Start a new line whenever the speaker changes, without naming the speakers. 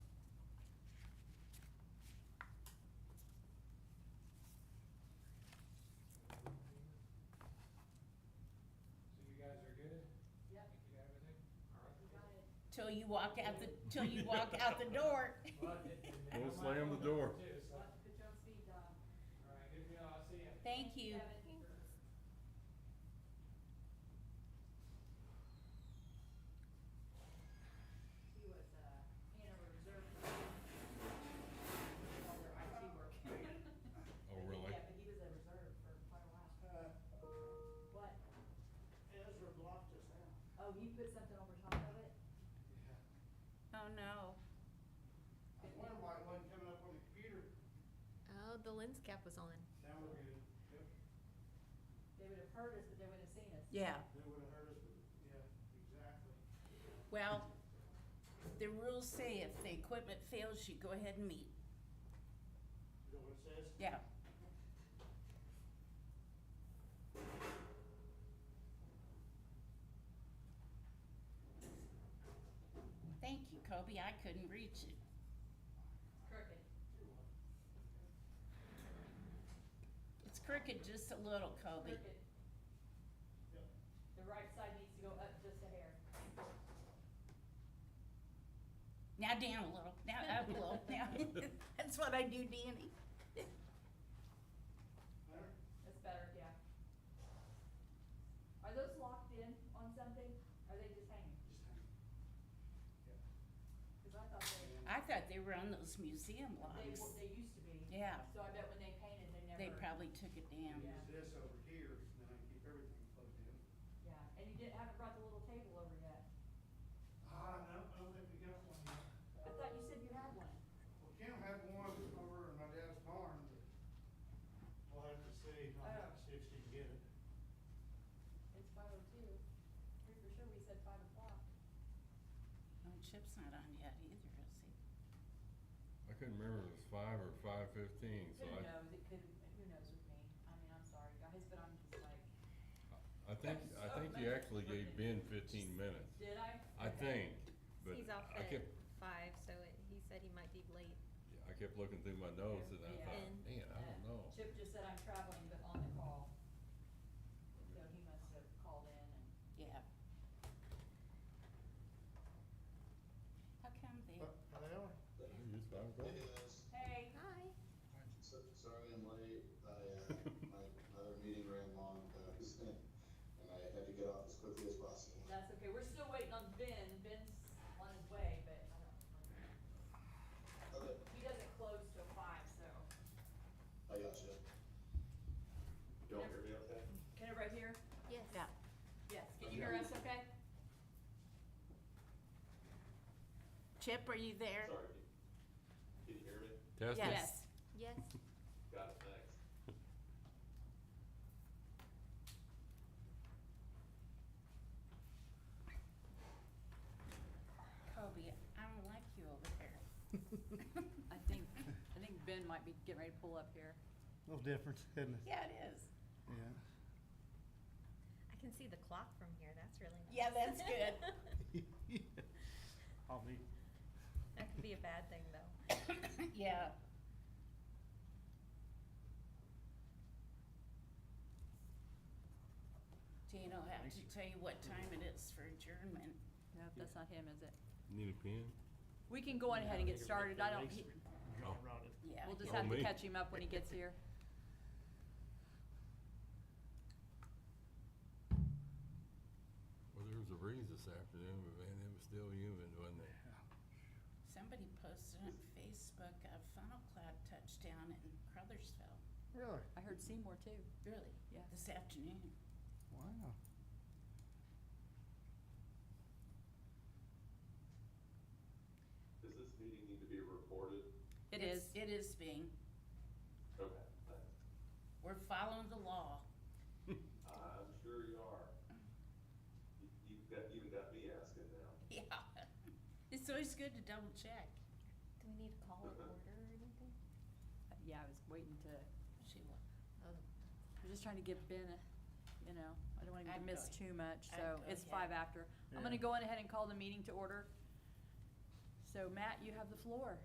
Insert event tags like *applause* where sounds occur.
till you walk out the, till you walk out the door.
We'll slam the door.
Put you on speed dial.
Alright, good deal, I'll see ya.
Thank you.
Kevin. He was, uh, Hanover Reserve. All their IT work.
Oh, really?
Yeah, but he was a reserve for quite a while.
Uh.
What?
Ezra blocked us out.
Oh, you put something over top of it?
Oh, no.
I was wondering why it wasn't coming up on the computer.
Oh, the lens cap was on.
Now we're good. Yep,
They would have heard us, but they wouldn't have seen us.
Yeah.
they would have heard us, but, yeah, exactly.
Well, the rules say if the equipment fails, you go ahead and meet.
You know what it says?
Yeah. Thank you, Kobe. I couldn't reach it.
Crooked.
It's crooked just a little, Kobe.
Crooked. The right side needs to go up just a hair.
Now down a little, now up a little, now. *laughs* That's what I do, Danny.
Better?
That's better, yeah. Are those locked in on something? Are they just hanging?
Just hang.
Cause I thought they,
I thought they were on those museum
they,
locks.
w- they used to be.
Yeah,
So I bet when they painted, they never.
they probably took it down.
Yeah.
Use this over here, and then I can keep everything plugged in.
Yeah, and you didn't, haven't brought the little table over yet.
Ah, no, I don't think we got one yet.
I thought you said you had one.
Well, Kim had one over in my dad's barn, but we'll have to see, I'll have to see if she can get it.
It's five oh two. Pretty for sure we said five o'clock.
No, Oh, Chip's not on yet either, is he?
I couldn't remember if it was five or five fifteen, so
Who
I,
knows? It could, who knows with me? I mean, I'm sorry, guys, but I'm just like,
I think, I think you actually gave Ben fifteen minutes.
did I?
I
Okay.
think, but
He's off
I
at
kept,
five, so it, he said he might be late.
I kept looking through my notes and I
Yeah.
thought, man, I don't know.
Chip just said I'm traveling, but on the call. So he must have called in and.
Yeah. How come they,
It's five o'clock.
Hey.
Hi.
So, sorry I'm late, I, uh, my, another meeting ran long, but I was in, and I had to get off as quickly as possible.
That's okay, we're still waiting on Ben, Ben's on his way, but I don't,
Okay,
he doesn't close till five, so.
I got you. Y'all hear me okay?
Can everybody hear?
Yes.
Yeah.
Yes, can you hear us okay?
Chip, are you there?
Sorry, can can you hear me?
Test it.
Yes.
Yes.
Got it, thanks.
Kobe, I don't like you over there.
I think, I think Ben might be getting ready to pull up here.
Little difference, isn't it?
Yeah, it is.
Yeah.
I can see the clock from here. That's really nice.
Yeah, that's good.
*laughs* I'll be.
*laughs* that could be a bad thing, though.
Yeah. Jane will have to tell you what time it is for adjournment.
No, that's not him, is it?
Need a pen?
We can go on ahead and get started, I don't, he-
Oh.
Yeah.
we'll just
Oh,
have to
me.
catch him up when he gets here.
Well, there was a breeze this afternoon, but man, it was still humid, wasn't it?
Somebody posted on Facebook, a funnel cloud touchdown in Crothersville.
Really?
I heard Seymour too.
Really?
Yes.
This afternoon.
Wow.
Does this meeting need to be recorded?
It
It's-
is,
It is being.
Okay, thanks.
We're following the law. *laughs*
I'm sure you are. You, you've got, even got me asking now.
Yeah. It's always good to double check.
Do we need to call an order or anything?
yeah, I was waiting to, I
She will.
was just trying to give Ben, a- you know, I don't want him
I'd
to miss
go-
too much,
I'd
so
go
it's
ahead.
five after. I'm gonna
Yeah.
go on ahead and call the meeting to order. So Matt, you have the floor.